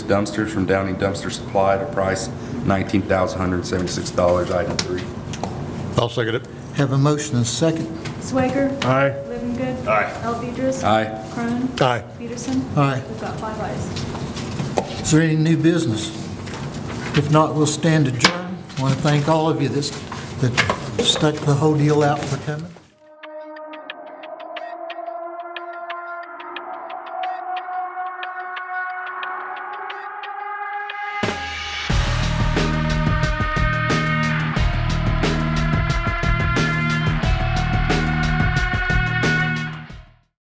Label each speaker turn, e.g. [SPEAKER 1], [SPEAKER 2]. [SPEAKER 1] dumpsters from Downing Dumpster Supply at a price $19,176, item three.
[SPEAKER 2] I'll second it.
[SPEAKER 3] Have a motion and a second.
[SPEAKER 4] Swager.
[SPEAKER 2] Aye.
[SPEAKER 4] Livengood.
[SPEAKER 5] Aye.
[SPEAKER 4] Elvidres.
[SPEAKER 1] Aye.
[SPEAKER 4] Crone.
[SPEAKER 2] Aye.
[SPEAKER 4] Peterson.
[SPEAKER 3] Aye.
[SPEAKER 4] We've got five ayes.
[SPEAKER 3] Is there any new business? If not, we'll stand adjourned. Want to thank all of you that's- that stuck the whole deal out for coming.